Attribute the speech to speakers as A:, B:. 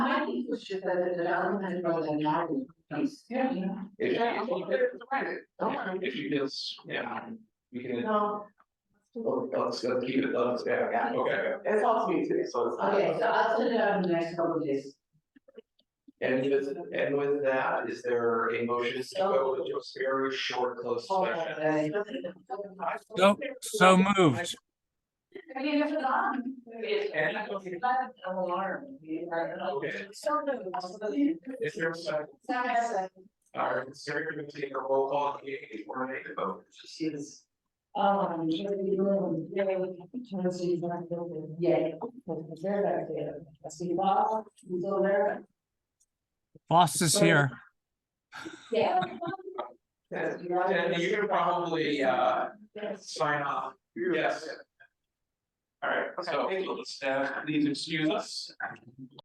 A: Should the development or the garden piece?
B: Yeah.
C: If
B: Yeah,
C: you-
A: Don't worry.
C: If you just, yeah, we can,
B: No,
C: oh, let's, let's keep it, let's, yeah, okay.
B: it's all to me too, so it's. not-
A: Okay, so I'll send it out in the next couple of days.
C: And with, and with that, is there a motion to go into a very short closed session?
D: So, so moved.
B: I mean, if it's on.
C: And- Okay. Is there a second? All right, so we're gonna take a roll call, if we're ready to vote.
A: She's. Um, she's really good, really good, turns to you, like, really, yeah. Because they're back there. I see Bob, he's over there.
D: Boss is here.
A: Yeah.
C: And and you can probably, uh,
A: Yes.
C: sign off, yes. All right, so,
B: Okay.
C: let's, uh, please excuse us.